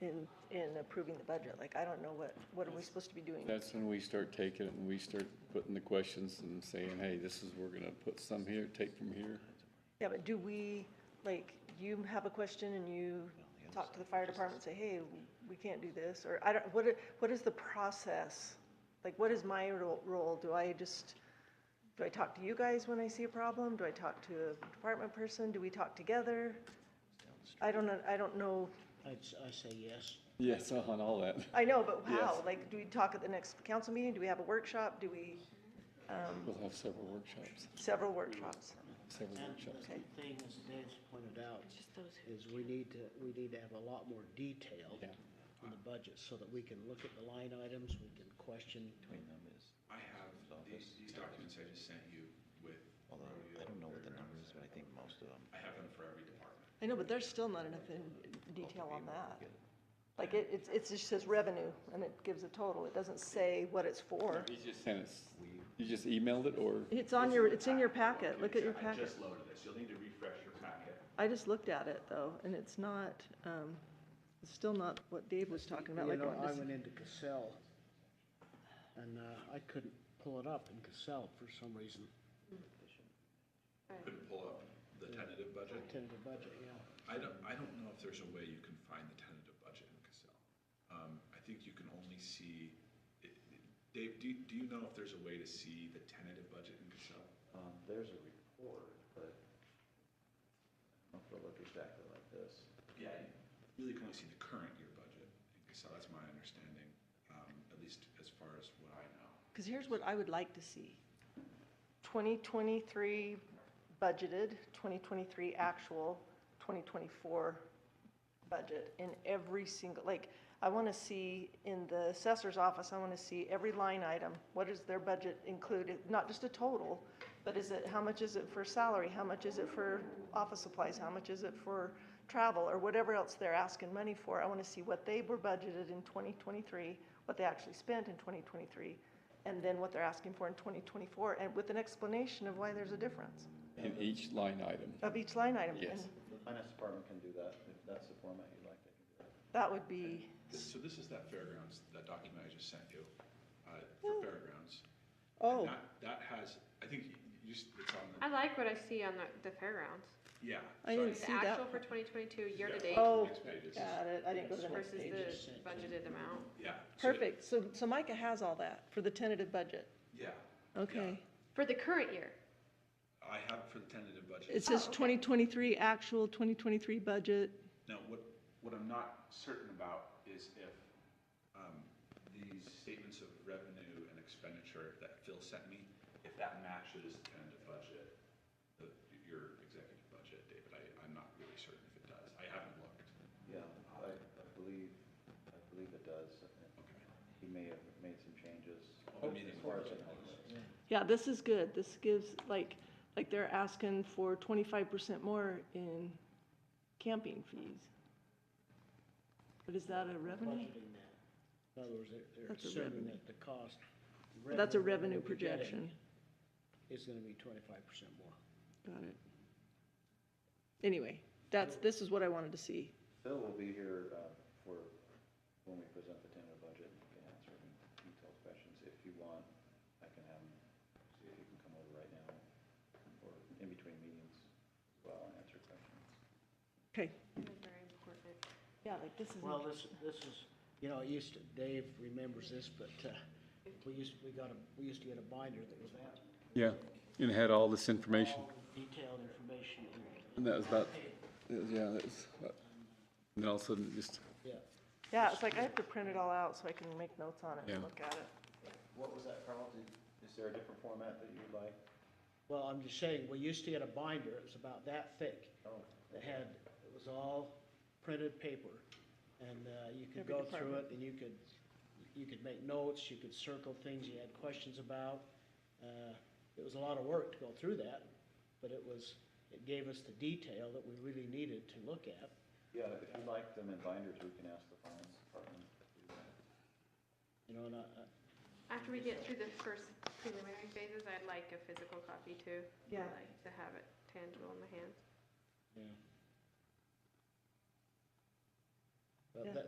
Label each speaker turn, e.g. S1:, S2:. S1: in, in approving the budget. Like, I don't know what, what are we supposed to be doing?
S2: That's when we start taking it and we start putting the questions and saying, hey, this is, we're gonna put some here, take from here.
S1: Yeah, but do we, like, you have a question and you talk to the fire department, say, hey, we can't do this, or I don't, what, i- what is the process? Like, what is my ro- role? Do I just, do I talk to you guys when I see a problem? Do I talk to a department person? Do we talk together? I don't, know- I don't know,
S3: I'd, s- I say yes.
S2: Yes, uh-huh, and all that.
S1: I know, but how?
S2: Yes.
S1: Like, do we talk at the next council meeting? Do we have a workshop? Do we,
S2: We'll have several workshops,
S1: several workshops?
S2: several
S3: And
S2: workshops.
S3: the thing, as Dan's pointed out, is we need to, we need to have a lot more detail
S2: Yeah.
S3: on the budget so that we can look at the line items, we can question.
S4: I have, these, these documents I just sent you with,
S5: Although, I don't know what the number is, but I think most of them.
S4: I have them for every department.
S1: I know, but there's still not enough in detail on that. Like, it, it's, it's just says revenue, and it gives a total, it doesn't say what it's for.
S2: You just sent us, you just emailed it or?
S1: It's on your, it's in your packet, look at your
S4: I
S1: packet.
S4: just loaded this, you'll need to refresh your packet.
S1: I just looked at it, though, and it's not, um, it's still not what Dave was talking about,
S3: You
S1: like,
S3: know, I
S1: what this-
S3: went into Cassell and, uh, I couldn't pull it up in Cassell for some reason,
S4: Couldn't pull up the tentative budget.
S3: tentative budget, yeah.
S4: I don't, I don't know if there's a way you can find the tentative budget in Cassell. Um, I think you can only see, it- it- Dave, do, you- do you know if there's a way to see the tentative budget in Cassell?
S5: Um, there's a report, but I don't know if it'll look exactly like this.
S4: Yeah. you Really can only see the current year budget in Cassell, that's my understanding, um, at least as far as what I know.
S1: Because here's what I would like to see. 2023 budgeted, 2023 actual, 2024 budget in every single, like, I want to see in the assessor's office, I want to see every line item. What is their budget included? Not just a total, but is it, how much is it for salary? How much is it for office supplies? How much is it for travel or whatever else they're asking money for? I want to see what they were budgeted in 2023, what they actually spent in 2023, and then what they're asking for in 2024, and with an explanation of why there's a difference
S2: In each line item.
S1: of each line item.
S2: Yes.
S1: And
S5: The finance department can do that, if that's the format you'd like, they can do that.
S1: That would be,
S4: This- So this is that fairgrounds, that document I just sent you, uh, for fairgrounds.
S1: Oh.
S4: And that, that has, I think you, you, s- it's on
S6: I
S4: the,
S6: like what I see on the, the fairgrounds.
S4: yeah.
S1: I
S4: so
S1: didn't
S6: The
S1: See that
S6: actual
S1: one?
S6: for 2022 year to
S4: Yeah.
S6: date
S1: oh,
S4: Next page is-
S1: got it, I didn't go to the next
S6: versus
S1: page.
S6: the budgeted amount.
S4: Yeah. so-
S1: Perfect, so, so Micah has all that for the tentative budget,
S4: Yeah.
S1: okay.
S6: For the current year.
S4: yeah. I have it for the tentative budget.
S1: It says
S6: Oh, okay.
S1: 2023 actual, 2023 budget,
S4: Now, what, what I'm not certain about is if um, these statements of revenue and expenditure that Phil sent me, if that matches the tentative budget, the- your executive budget, David, I, I'm not really certain if it does. I haven't looked.
S5: Yeah, I, I believe, I believe it does.
S4: Okay.
S5: He may have made some changes.
S4: Open meeting
S5: as far as I
S4: with-
S5: know.
S1: Yeah, this is good. This gives, like, like they're asking for twenty-five percent more in camping fees. But is that a revenue?
S3: Budgeting that. In other words, they're, they're
S1: That's a
S3: assuming
S1: revenue.
S3: that the cost.
S1: That's a revenue
S3: we're getting
S1: projection.
S3: Is gonna be twenty-five percent more.
S1: Got it. Anyway, that's, this is what I wanted to see.
S5: Phil will be here, uh, for, when we present the tentative budget, and can answer any detailed questions. If you want, I can have him, see if he can come over right now, or in between meetings, as well, and answer questions.
S1: Okay.
S6: That was Very important.
S1: Yeah, like this is,
S3: Well, this, this is, you know, it used to, Dave remembers this, but, uh, we used, we got a, we used to get a binder that was that.
S2: Yeah, and it had all this information.
S3: all Detailed information in it.
S2: And that was about, yeah, that was, about- and then all of a sudden it just,
S3: Yeah.
S1: yeah, it's like I have to print it all out so I can make notes on it
S2: Yeah.
S1: and look at it.
S5: What was that, Carl? Did- Is there a different format that you'd like?
S3: Well, I'm just saying, we used to get a binder, it was about that thick.
S5: Oh.
S3: That had, it was all printed paper, and, uh, you could
S1: Every
S3: go through
S1: department.
S3: it, and you could, you could make notes, you could circle things you had questions about. Uh, it was a lot of work to go through that, but it was, it gave us the detail that we really needed to look at.
S5: Yeah, if you'd like them in binders, we can ask the finance department. to do that.
S3: You know, and I, I-
S6: After we get through the first preliminary phases, I'd like a physical copy too.
S1: Yeah.
S6: I'd like to have it tangible in my hands.
S3: yeah.
S1: Yeah.
S3: But that,